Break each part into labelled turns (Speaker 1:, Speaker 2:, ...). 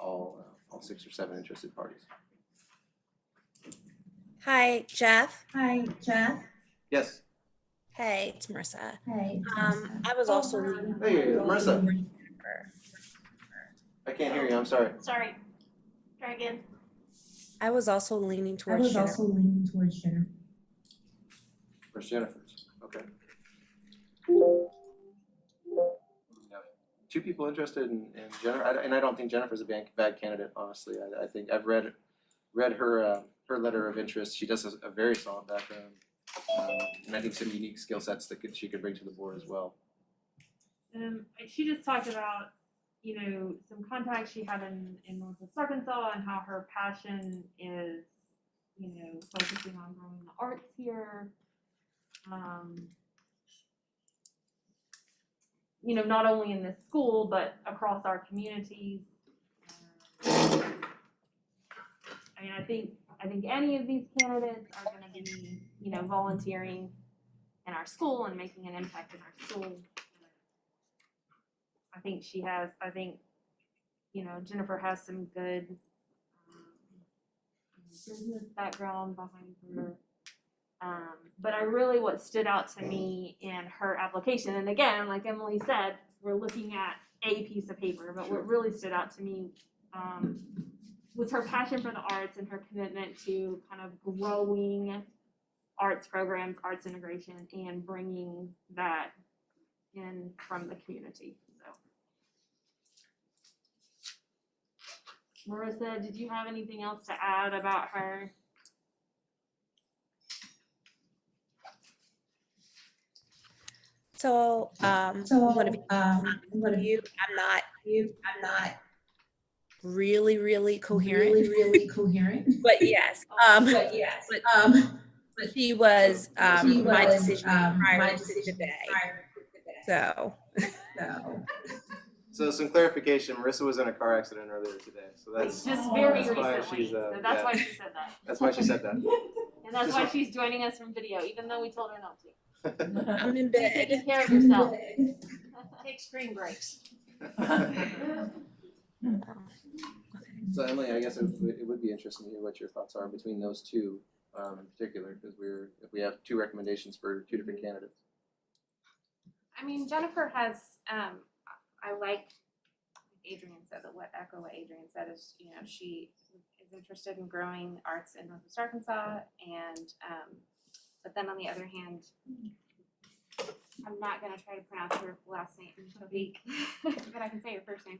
Speaker 1: uh, six or seven interested parties.
Speaker 2: Hi, Jeff.
Speaker 3: Hi, Jeff.
Speaker 1: Yes.
Speaker 2: Hey, it's Marissa.
Speaker 3: Hi.
Speaker 2: Um, I was also the
Speaker 1: Hey, Marissa,
Speaker 2: member.
Speaker 1: I can't hear you, I'm sorry.
Speaker 4: Sorry. Try again.
Speaker 2: I was also leaning
Speaker 3: I
Speaker 2: towards
Speaker 3: was
Speaker 2: Jennifer.
Speaker 3: also leaning towards Jennifer.
Speaker 1: Where's Jennifer's? Okay. Two people interested in, in Jennifer, I- and I don't think Jennifer's a bad, bad candidate, honestly. I, I think I've read, read her, uh, her letter of interest. She does a, a very solid background. Um, and I think some unique skill sets that could, she could bring to the board as well.
Speaker 5: Um, she just talked about, you know, some contacts she had in, in Northwest Arkansas and how her passion is, you know, focusing on growing the arts here. Um, you know, not only in this school, but across our communities. Um, I mean, I think, I think any of these candidates are gonna be, you know, volunteering in our school and making an impact in our school. I think she has, I think, you know, Jennifer has some good um, business background behind her. Um, but I really, what stood out to me in her application, and again, like Emily said, we're looking at a piece of paper, but
Speaker 1: Sure.
Speaker 5: what really stood out to me, um, was her passion for the arts and her commitment to kind of growing arts programs, arts integration, and bringing that in from the community, so. Marissa, did you have anything else to add about her?
Speaker 2: So, um,
Speaker 3: So,
Speaker 2: I'm gonna be
Speaker 3: um, what have you,
Speaker 2: you, I'm not
Speaker 3: you, I'm not
Speaker 2: really, really coherent,
Speaker 3: really, really coherent.
Speaker 2: but yes. Um,
Speaker 3: But yes,
Speaker 2: but-
Speaker 3: um,
Speaker 2: she was um,
Speaker 3: she
Speaker 2: my
Speaker 3: was,
Speaker 2: decision
Speaker 3: um,
Speaker 2: prior
Speaker 3: my
Speaker 2: to
Speaker 3: decision
Speaker 2: today.
Speaker 3: prior to today.
Speaker 2: So,
Speaker 3: So,
Speaker 1: So some clarification, Marissa was in a car accident earlier today, so that's,
Speaker 5: Just very
Speaker 1: that's why
Speaker 5: recently,
Speaker 1: she's, uh,
Speaker 5: so that's
Speaker 1: yeah.
Speaker 5: why she said that.
Speaker 1: that's why she said that.
Speaker 5: And that's
Speaker 1: Just
Speaker 5: why
Speaker 1: wa-
Speaker 5: she's joining us from video, even though we told her not to.
Speaker 3: Uh-huh.
Speaker 2: I'm in
Speaker 5: She's
Speaker 2: bed.
Speaker 5: taking care of herself.
Speaker 4: Take screen breaks.
Speaker 1: So Emily, I guess it would, it would be interesting to hear what your thoughts are between those two, um, in particular, because we're, if we have two recommendations for two different candidates.
Speaker 6: I mean, Jennifer has, um, I like Adrian said, that what echo what Adrian said is, you know, she is interested in growing arts in Northwest Arkansas and, um, but then on the other hand, I'm not gonna try to pronounce her last name in a week, but I can say her first name,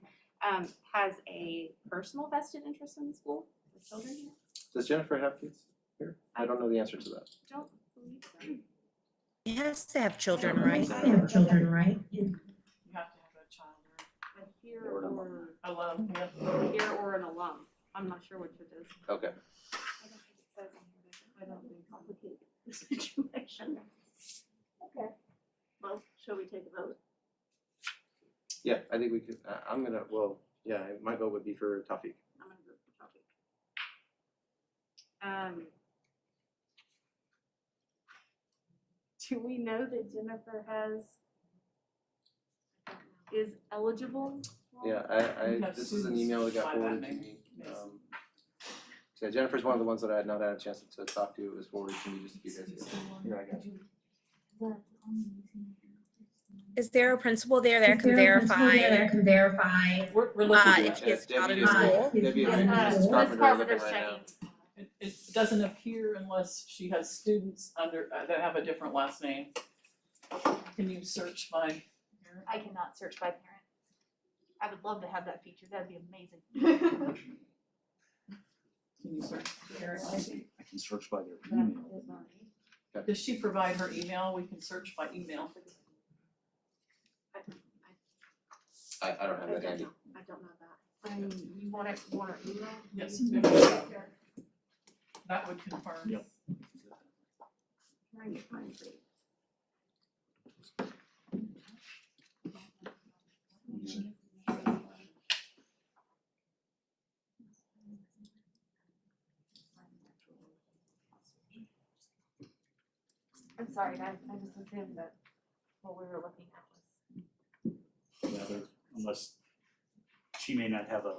Speaker 6: um, has a personal vested interest in the school, the children here.
Speaker 1: Does Jennifer have kids here? I don't know the answer to that.
Speaker 6: Don't believe so.
Speaker 2: It has to have children, right?
Speaker 3: I have children, right?
Speaker 7: You have to have a child or
Speaker 5: A here
Speaker 1: Or an
Speaker 5: or,
Speaker 7: alone.
Speaker 5: here or an alum, I'm not sure which it is,
Speaker 1: Okay.
Speaker 6: I don't think it says on here, does it?
Speaker 5: I don't think complicated.
Speaker 4: Situation. Okay. Well, shall we take a vote?
Speaker 1: Yeah, I think we could, uh, I'm gonna, well, yeah, my vote would be for Tawfiq.
Speaker 5: I'm gonna go for topic.
Speaker 6: Um,
Speaker 5: Do we know that Jennifer has, is eligible?
Speaker 1: Yeah, I, I,
Speaker 7: No,
Speaker 1: this is an
Speaker 7: Susan's
Speaker 1: email that got
Speaker 7: my
Speaker 1: forwarded to
Speaker 7: bad
Speaker 1: me. um, Yeah, Jennifer's one of the ones that I had not had a chance to talk to. It was forwarded to me just a few days ago. Here, I got it.
Speaker 2: Is there a principal there that can
Speaker 3: Is there a principal
Speaker 2: verify
Speaker 3: there that Can verify.
Speaker 7: We're, we're
Speaker 2: uh,
Speaker 7: looking
Speaker 2: if
Speaker 7: at
Speaker 2: she
Speaker 7: it.
Speaker 2: is out of
Speaker 1: Debbie is-
Speaker 2: school?
Speaker 1: Debbie
Speaker 3: Yeah.
Speaker 1: and
Speaker 3: Uh,
Speaker 1: Mrs.
Speaker 3: Miss
Speaker 1: Carpenter are looking
Speaker 5: Carpenter's
Speaker 1: right now.
Speaker 5: checking.
Speaker 7: it. It doesn't appear unless she has students under, uh, that have a different last name. Can you search by?
Speaker 4: I cannot search by parent. I would love to have that feature. That'd be amazing.
Speaker 7: Can you search? Eric?
Speaker 8: I can search by their
Speaker 5: Yeah.
Speaker 8: email.
Speaker 7: Does she provide her email? We can search by email.
Speaker 1: I, I don't have that handy.
Speaker 5: I don't know that.
Speaker 4: Um, you want it, you want it emailed?
Speaker 7: Yes, that would confirm.
Speaker 8: Yep.
Speaker 4: Can I get mine, please?
Speaker 5: I'm sorry, guys, I just assumed that what we were looking at was.
Speaker 8: Rather, unless she may not have a